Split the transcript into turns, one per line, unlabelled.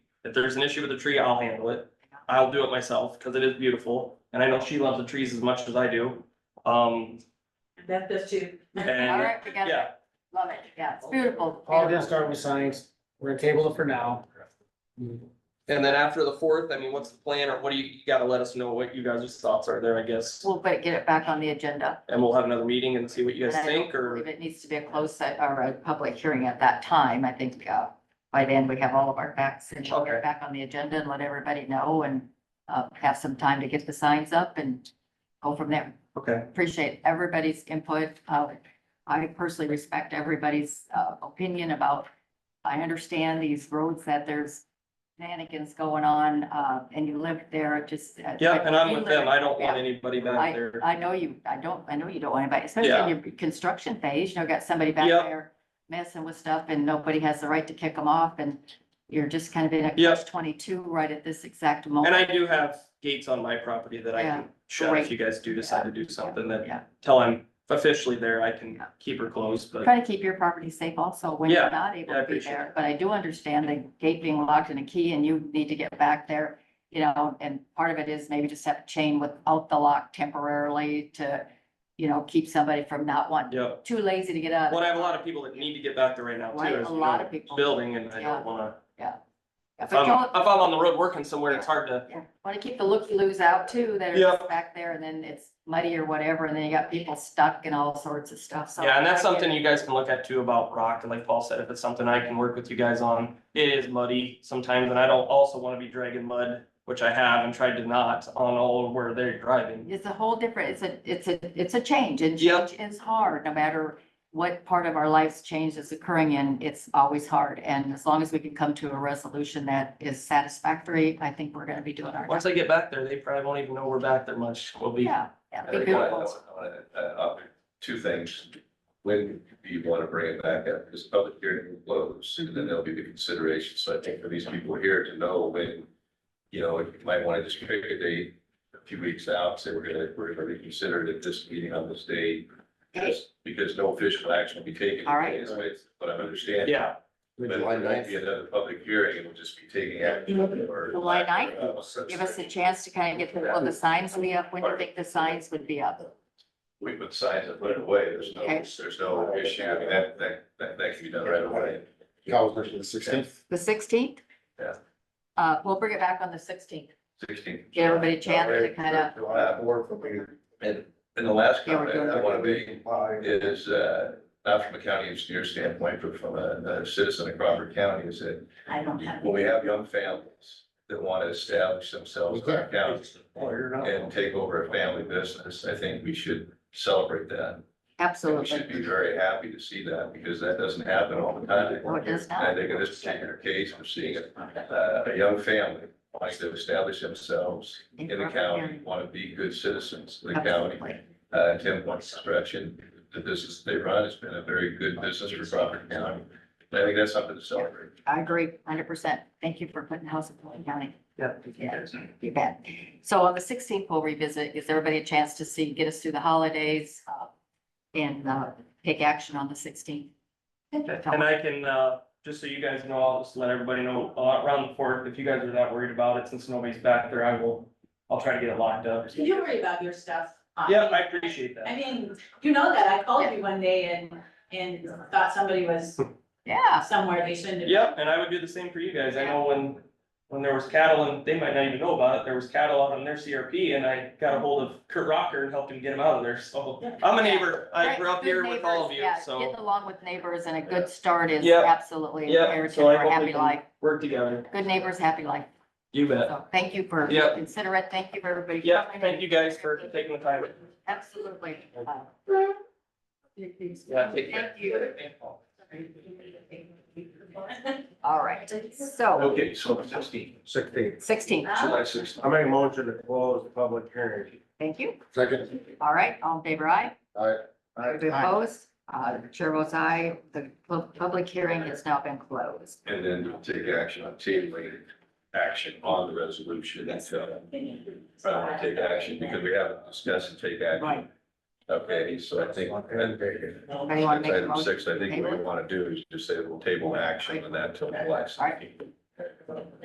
If there's an issue with a tree, I'll handle it. I'll do it myself, cause it is beautiful, and I know she loves the trees as much as I do. Um,
Beth does too.
All
and,
right, together.
yeah,
Love it. Yeah, it's beautiful.
Paul didn't start with science. We're gonna table it for now.
and then after the fourth, I mean, what's the plan, or what do you, you gotta let us know what you guys' thoughts are there, I guess.
We'll ba- get it back on the agenda.
And we'll have another meeting and see what you
And
guys
I don't
think, or,
believe it needs to be a closed se- or a public hearing at that time. I think, uh, by then we have all of our facts and we'll get
Okay.
it back on the agenda and let everybody know and, uh, have some time to get the signs up and go from there.
okay,
appreciate everybody's input. Uh, I personally respect everybody's, uh, opinion about, I understand these roads that there's shenanigans going on, uh, and you live there, it just. uh,
yeah, and I'm with them, I don't want
Yeah.
anybody back
I,
there.
I know you, I don't, I know you don't want anybody, especially in your construction phase, you know, got somebody back
Yep.
there messing with stuff and nobody has the right to kick them off and you're just kind of in a
Yep.
catch twenty-two right at this exact
And
moment.
I do have gates on my property that I can shut if
great.
you guys do decide to do something, that
Yeah.
till I'm officially there, I can
Yeah.
keep her closed, but.
Try to keep your property safe also when
Yeah,
you're not able
yeah, I
to be
appreciate
there,
that.
but I do understand the gate being locked and a key and you need to get back there. You know, and part of it is maybe just have a chain without the lock temporarily to, you know, keep somebody from not wanting,
Yeah,
too lazy to get out.
well, I have a lot of people that need to get back there right now
Right,
too. as
a
you
lot
know,
of people.
Building and I
Yeah.
don't wanna, if
If
I'm,
I
if
don't-
I'm on the road working somewhere, it's hard to,
yeah, Want to keep the looky-loos out too, that are
Yeah.
just back there and then it's muddy or whatever, and then you got people stuck and all sorts of stuff, so.
yeah, and that's
I get it.
something you guys can look at too about rock, and like Paul said, if it's something I can work with you guys on. It is muddy sometimes, and I don't also wanna be dragging mud, which I have and tried to not on all where they're driving.
It's a whole different, it's a, it's a, it's a change and
Yeah.
change is hard, no matter what part of our life's change is occurring in, it's always hard. And as long as we can come to a resolution that is satisfactory, I think we're gonna be doing our.
Once I get back there, they probably won't even know we're back there much, we'll be.
Yeah, yeah,
I
be
think I- I
beautiful.
want- I want to add up Uh, Two things, when do you want to bring it back up, because public hearing will close, and then there'll be the consideration, so I think for these people here to know when. You know, if you might want to just pick a date a few weeks out, say we're gonna, we're gonna reconsider it at this meeting on this date. Just because no official action will be taken.
All right.
Is what I'm understanding.
Yeah,
But there won't be another public hearing, it will just be taking action. or-
July 9th?
Uh, so-
Give us a chance to kind of get, the- will the signs be up? When do you think the signs would be up?
we put signs and put it away, there's no,
Okay.
there's no issue, I mean, that, that, that, that can be done right away.
the sixteenth.
The sixteenth?
Yeah.
Uh, we'll bring it back on the sixteenth.
Sixteen.
Give everybody a chance to kind of,
And, and the last
Yeah, we're doing
comment I wanna make is, uh, not from a county engineer standpoint, but from a, a citizen of Crawford County, is that
I don't have.
when we have young families that wanna establish themselves in our county and take over a family business, I think we should celebrate that. And We should be
Absolutely.
very happy to see that, because that doesn't happen all the time.
Oh, it does
And I
not.
think in this particular case, we're seeing a, uh, a young family wants to establish themselves in the county, want to be good citizens of the county.
Absolutely.
Uh, Tim points construction, the business they run has been a very good business for Crawford County. I think that's something to celebrate.
I agree, hundred percent. Thank you for putting House of Plain County.
Yeah.
Yeah, you bet. So on the sixteenth, we'll revisit, gives everybody a chance to see, get us through the holidays, uh, and, uh, take action on the sixteenth.
And I can, uh, just so you guys know, I'll just let everybody know, uh, around the fourth, if you guys are that worried about it, since nobody's back there, I will, I'll try to get it locked up.
You worry about your stuff. uh,
Yeah, I appreciate
I
that.
mean, you know that. I called you one day and, and thought somebody was
Yeah,
somewhere they shouldn't have. been.
Yeah, and I would do the same for you guys. I know when, when there was cattle and they might not even know about it, there was cattle out on their CRP and I got a hold of Kurt Rocker and helped him get him out of there, so. I'm a neighbor. I
Right,
grew up
good
here with all
neighbors,
of you,
yeah,
so.
Getting along with neighbors and a good start is
Yep.
absolutely
Yeah,
imperative
so
for
I
a
hope we
happy life.
can work together.
Good neighbors, happy life.
You bet.
So thank you for
Yep.
considering. Thank you for everybody.
Yeah,
coming.
thank you guys for taking the time.
Absolutely. Uh,
Yeah, take care.
Thank you. All right, so
Okay, so sixteen.
Sixteenth.
sixteen,
July sixteen.
I make a motion to close the public hearing.
thank you.
Second.
All right, all in favor, aye? Anybody
Aye.
Opposed? Uh, chair votes aye. The pu- public hearing has now been closed.
And then we'll take action on tabling, action on the resolution. That's. I want to take action because we haven't discussed and take action.
Right.
Okay, so I think.
Anybody want to make a
Item
motion?
six, I think what we want to do is just say we'll table action on that till the last.
All right.
meeting.